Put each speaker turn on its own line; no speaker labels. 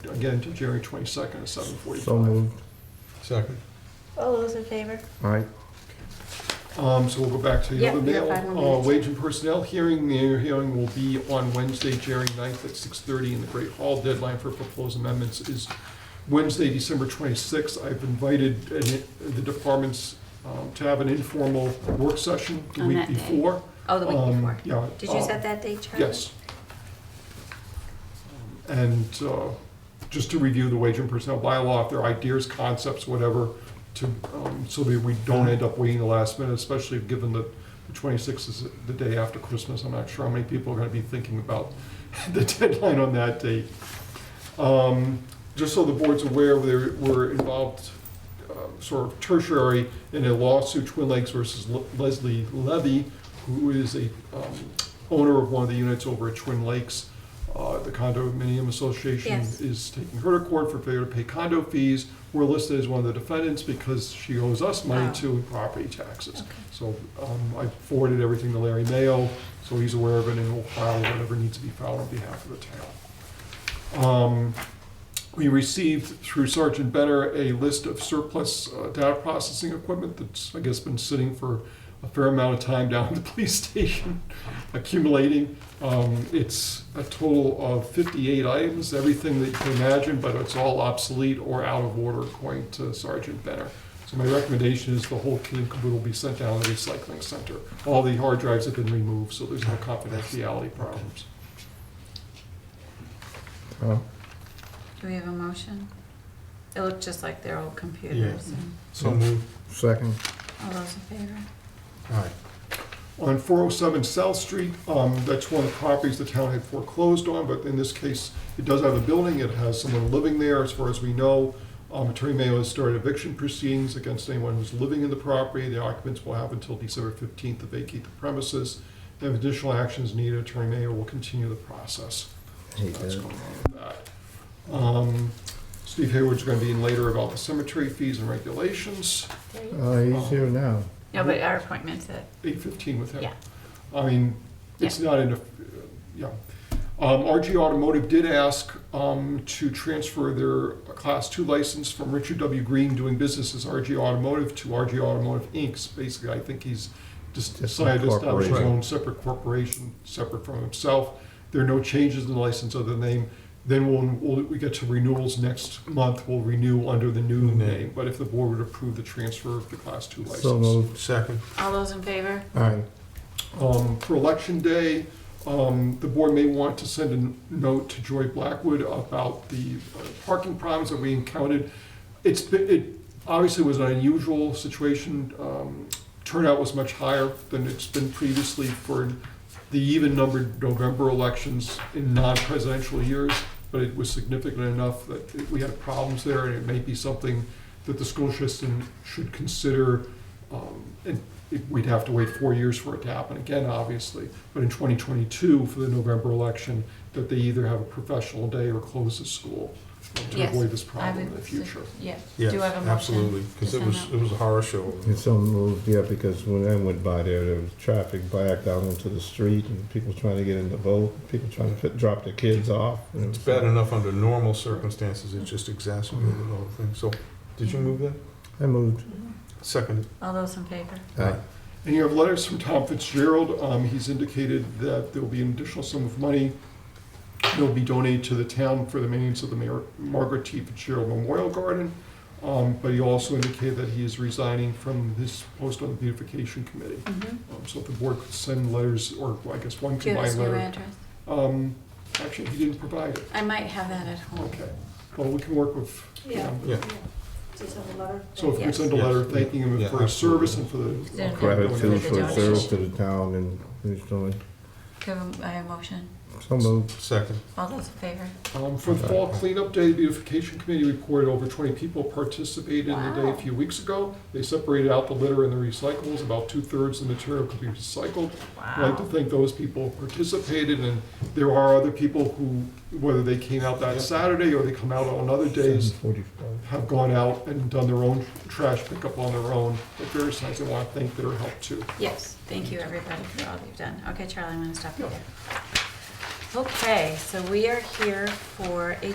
again to January 22nd at 7:45.
So moved.
Second.
All those in favor?
Aye.
Um, so we'll go back to the
Yeah,
other
we have
mail.
five more
Uh,
minutes.
wage and personnel hearing, the hearing will be on Wednesday, January 9th at six thirty in the Great Hall. Deadline for proposed amendments is Wednesday, December twenty-sixth. I've invited an- the departments, um, to have an informal work session the
On
week
that day.
before.
Oh, the
Um,
week before.
Yeah.
Did you
uh,
set that date, Charlie?
Yes. Um, And uh, just to review the wage and personnel bylaw, if there are ideas, concepts, whatever, to, um, so that we don't end up waiting the last minute, especially given that the 26th is the day after Christmas. I'm not sure how many people are going to be thinking about the deadline on that date. Um, Just so the board's aware, there were involved uh, sort of tertiary in a lawsuit, Twin Lakes versus Le- Leslie Levy, who is a um, owner of one of the units over at Twin Lakes. Uh, The condominium association
Yes.
is taking her to court for failure to pay condo fees. We're listed as one of the defendants because she owes us money
Oh.
too in property taxes.
Okay.
So um, I forwarded everything to Larry Mayo, so he's aware of it and will file whatever needs to be filed on behalf of the town. Um, We received through Sergeant Benner a list of surplus uh, data processing equipment that's, I guess, been sitting for a fair amount of time down at the police station accumulating. Um, It's a total of 58 items, everything that you can imagine, but it's all obsolete or out of order according to Sergeant Benner. So my recommendation is the whole kit and caboodle be sent down to the recycling center. All the hard drives have been removed, so there's no confidentiality problems.
Tom?
Do we have a motion? It looked just like their old computers. and-
So moved.
Second.
All those in favor?
Aye.
on 407 South Street. um, That's one of the properties the town had foreclosed on, but in this case, it does have a building, it has someone living there, as far as we know. Um, Attorney Mayo has started eviction proceedings against anyone who's living in the property. The occupants will have until December 15th to vacate the premises. If additional actions needed, Attorney Mayo will continue the process. So
Hate
that's
that.
going on with that. Um, Steve Hayward's going to be in later about the cemetery fees and regulations.
There you go.
Uh, he's here now.
No, but our appointment's at,
eight fifteen with him.
Yeah.
I mean, it's not in a, yeah. Um, RG Automotive did ask, um, to transfer their class two license from Richard W. Green doing business as RG Automotive to RG Automotive Inc. Basically, I think he's just
Just
decided to establish his
incorporate.
own separate corporation, separate from himself. There are no changes in the license other than name. Then when we'll- we get to renewals next month, we'll renew under the new
Name.
name. But if the board would approve the transfer of the class two license.
So moved.
Second.
all those in favor?
Aye.
Um, For Election Day, um, the board may want to send a n- note to Joy Blackwood about the uh, parking problems that we encountered. It's, been- it obviously was an unusual situation. Um, Turnout was much higher than it's been previously for the even-numbered November elections in non-presidential years, but it was significant enough that it- we had problems there, and it may be something that the school system should consider um, And it- we'd have to wait four years for it to happen again, obviously. But in 2022, for the November election, that they either have a professional day or close the school um, to
Yes,
avoid this
I
problem in
would
the
su-
future.
Yes. Do
Yes,
you have a motion?
absolutely, because
to
it
send
was,
out?
it was a horror show.
And so moved, yeah, because when I went by there, there was traffic backed out onto the street and people trying to get in the boat, people trying to fit, drop their kids off. and it
It's
was-
bad enough under normal circumstances, it just exacerbated the whole thing. So, did you move that?
I moved.
Second.
Mm-hmm. All those in favor?
Aye.
And you have letters from Tom Fitzgerald. Um, He's indicated that there will be an additional sum of money that will be donated to the town for the maintenance of the Mar- Margaret T. Fitzgerald Memorial Garden. Um, But he also indicated that he is resigning from his post on the beautification committee.
Mm-hmm.
Um, So if the board could send letters, or I guess one
Do you have
combined
his new
letter.
address?
Um, actually, he didn't provide it.
I might have that at home.
Okay. Well, we can work with, you
Yeah.
know,
Yeah.
Just have a letter.
so if we
Yes.
send a letter
Yes.
thanking him
Yeah,
for his
absolutely.
service and for the.
Then-
Gratitude for his
donation.
service to the town and what he's doing.
Do you have a- I have a motion?
So moved.
Second.
All those in favor?
Um, for the fall cleanup day, the beautification committee reported over twenty people participated in the day a
Wow.
few weeks ago. They separated out the litter and the recyclables, about two-thirds of the material could be recycled. I'd like to
Wow.
thank those people who participated, and there are other people who, whether they came out that Saturday or they come out on other days,
7:45.
have gone out and done their own trash pickup on their own at various times. I want to thank their help too.
Yes, thank you, everybody, for all you've done. Okay, Charlie, I'm gonna stop you there. Okay, so we are here for a